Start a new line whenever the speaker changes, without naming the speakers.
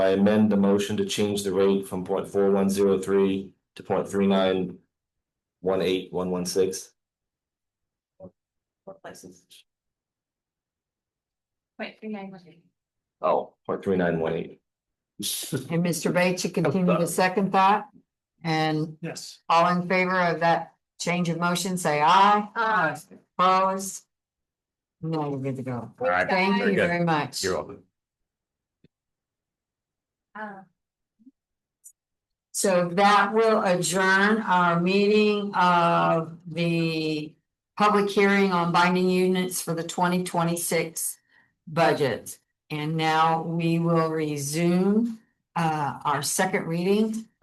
I amend the motion to change the rate from point four one zero three to point three nine one eight one one six.
Wait, three nine one eight.
Oh, point three nine one eight.
And Mr. Bates, you continue to second that? And
Yes.
all in favor of that change of motion, say aye.
Aye.
Opposed? No, we're good to go.
All right,
Thank
very
you
good.
very much.
You're welcome.
Uh,
So that will adjourn our meeting of the public hearing on binding units for the twenty twenty-six budget. And now we will resume uh, our second reading